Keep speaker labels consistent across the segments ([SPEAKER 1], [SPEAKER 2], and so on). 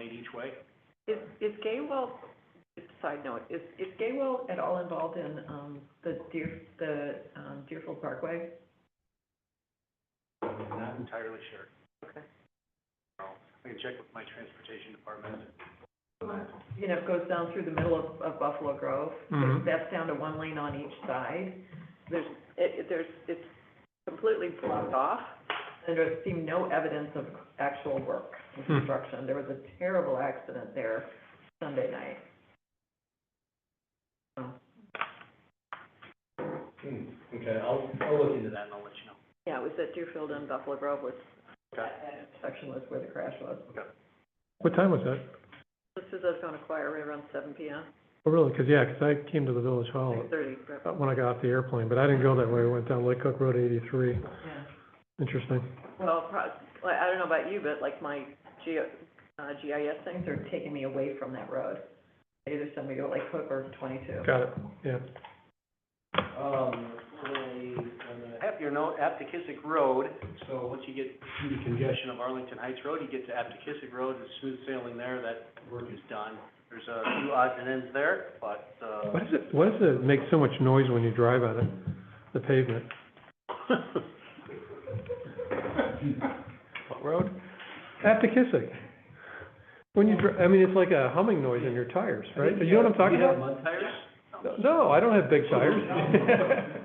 [SPEAKER 1] eight each way.
[SPEAKER 2] Is, is Gaywell, side note, is, is Gaywell at all involved in, um, the Deer, the, um, Deerfield Parkway?
[SPEAKER 1] I'm not entirely sure.
[SPEAKER 2] Okay.
[SPEAKER 1] I can check with my transportation department.
[SPEAKER 2] You know, it goes down through the middle of, of Buffalo Grove.
[SPEAKER 1] Mhm.
[SPEAKER 2] That's down to one lane on each side. There's, it, it- there's, it's completely blocked off. And there seemed no evidence of actual work and
[SPEAKER 1] Hmm.
[SPEAKER 2] construction. There was a terrible accident there Sunday night.
[SPEAKER 1] Hmm, Okay, I'll, I'll look into that and I'll let you know.
[SPEAKER 2] Yeah, it was at Deerfield and Buffalo Grove was,
[SPEAKER 1] Okay.
[SPEAKER 2] section was where the crash was.
[SPEAKER 3] What time was that?
[SPEAKER 2] This is us on a choir right around seven P M,
[SPEAKER 3] Oh, really? 'Cause yeah, 'cause I came to the village
[SPEAKER 1] Oh.
[SPEAKER 3] hall
[SPEAKER 2] six thirty,
[SPEAKER 3] uh, when I got off the airplane, but I didn't go that way. I went down Lake Cook Road eighty-three.
[SPEAKER 2] yeah.
[SPEAKER 3] Interesting.
[SPEAKER 2] Well, pro- like, I don't know about you, but like my G, uh, GIS things are taking me away from that road. Either send me to Lake Hook or twenty-two.
[SPEAKER 3] Got it, yeah.
[SPEAKER 1] Um, Your note, Aptekissick Road, so once you get to the congestion of Arlington Heights Road, you get to Aptekissick Road, it's smooth sailing there, that work is done. There's a few odds and ends there, but, uh.
[SPEAKER 3] What is it, what does it make so much noise when you drive on it, the pavement? What road? Aptekissic. When you dri, I mean, it's like a humming noise in your tires, right? You know what I'm talking
[SPEAKER 1] Do you have
[SPEAKER 3] about?
[SPEAKER 1] mud tires?
[SPEAKER 3] No, I don't have big tires.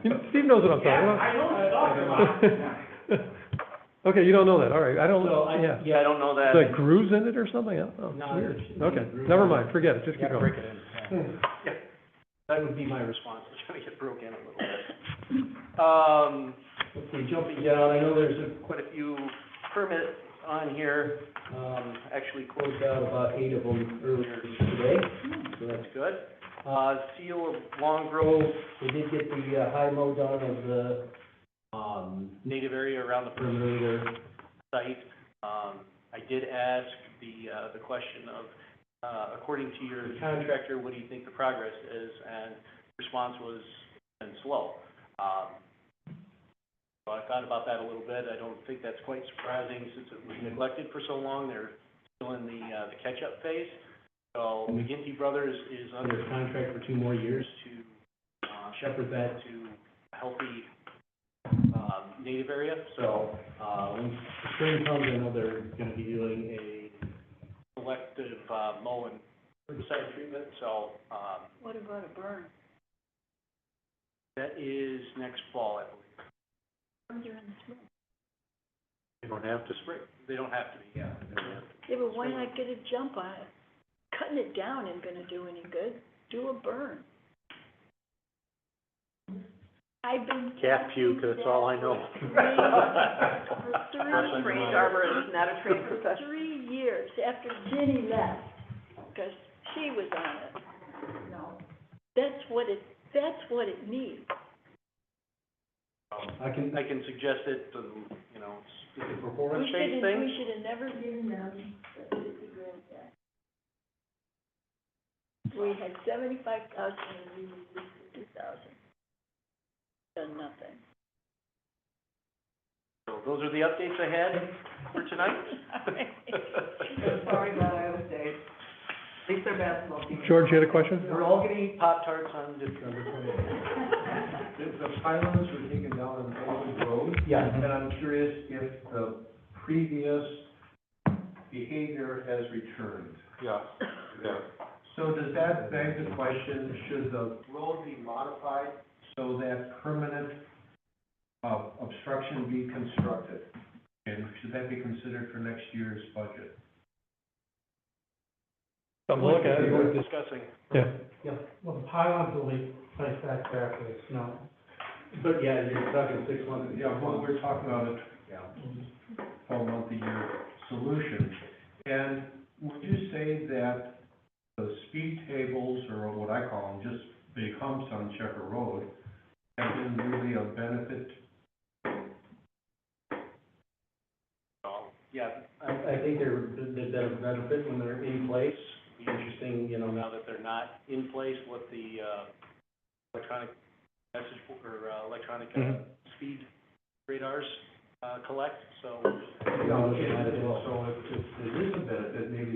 [SPEAKER 3] You know, Steve knows what I'm talking about.
[SPEAKER 1] know what I'm
[SPEAKER 3] Okay, you don't know that, all right, I don't,
[SPEAKER 1] So, I,
[SPEAKER 3] yeah.
[SPEAKER 1] yeah, I don't know that.
[SPEAKER 3] The grooves in it or something, I don't know.
[SPEAKER 1] No,
[SPEAKER 3] It's weird.
[SPEAKER 1] there's-
[SPEAKER 3] Okay,
[SPEAKER 1] there's-
[SPEAKER 3] never mind, forget it, just keep
[SPEAKER 1] Yeah,
[SPEAKER 3] going.
[SPEAKER 1] break it in, yeah. Yeah, That would be my response, is trying to get broke in a little bit. Um, let's see, jumping down, I know there's a- quite a few permits on here. Um, actually closed out about eight of them earlier today, so that's good. Uh, seal of Long Grove, we did get the uh, high mow done of the, um, native area around the perimeter of their site. Um, I did ask the, uh, the question of uh, according to your contractor, what do you think the progress is? And response was, been slow. Um, So I thought about that a little bit. I don't think that's quite surprising since it was neglected for so long. They're still in the, uh, the catch-up phase. So McGinty Brothers is under contract for two more years to uh, shepherd that to a healthy, um, native area. So, uh, when spring comes, I know they're gonna be doing a selective uh, mow and herbicide treatment, so, um,
[SPEAKER 2] What about a burn?
[SPEAKER 1] that is next fall, I believe. They don't have to spray? They don't have to be, yeah. they don't have to.
[SPEAKER 4] Yeah, but why not get a jump on it? Cutting it down ain't gonna do any good. Do a burn. I've been.
[SPEAKER 1] Cat puke, that's all I know.
[SPEAKER 4] For
[SPEAKER 1] That's
[SPEAKER 4] three,
[SPEAKER 1] what
[SPEAKER 2] Trained arborist, not a trained
[SPEAKER 4] for
[SPEAKER 2] professional.
[SPEAKER 4] three years after Ginny left, 'cause she was on it. No. That's what it, that's what it needs.
[SPEAKER 1] I can, I can suggest it, um, you know, it's- it's a
[SPEAKER 4] We
[SPEAKER 1] performance
[SPEAKER 4] should've-
[SPEAKER 1] based thing.
[SPEAKER 4] We should have never given them the fifty grand back. We had seventy-five thousand and we released fifty thousand. Done nothing.
[SPEAKER 1] So those are the updates I had for tonight.
[SPEAKER 2] Sorry about Iowa State. At least their basketball team.
[SPEAKER 3] George, you had a question?
[SPEAKER 1] We're all getting Pop Tarts on December twenty.
[SPEAKER 5] The, the pylons were taken down on Golden Road, and
[SPEAKER 1] Yeah.
[SPEAKER 5] I'm curious if the previous behavior has returned.
[SPEAKER 1] Yeah, yeah.
[SPEAKER 5] So does that beg the question, should the road be modified so that permanent, uh, obstruction be constructed? And should that be considered for next year's budget?
[SPEAKER 3] Something to look at.
[SPEAKER 1] We were discussing.
[SPEAKER 3] Yeah,
[SPEAKER 6] Yeah, well, the pylons will be placed back there after the snow. But yeah, you're stuck in six months.
[SPEAKER 5] Yeah, well, we're talking about a for multi-year solution. And would you say that the speed tables, or what I call them, just big humps on Checker Road, have been really a benefit?
[SPEAKER 1] Oh, Yeah,
[SPEAKER 6] I, I think they're, they've been a benefit when they're in place. Be interesting, you know,
[SPEAKER 1] now that they're not in place, what the, uh, electronic message bo- or uh, electronic, uh,
[SPEAKER 5] Mm-hmm.
[SPEAKER 3] Mhm.
[SPEAKER 1] speed radars, uh, collect, so
[SPEAKER 5] You know, So if, if there is a benefit, maybe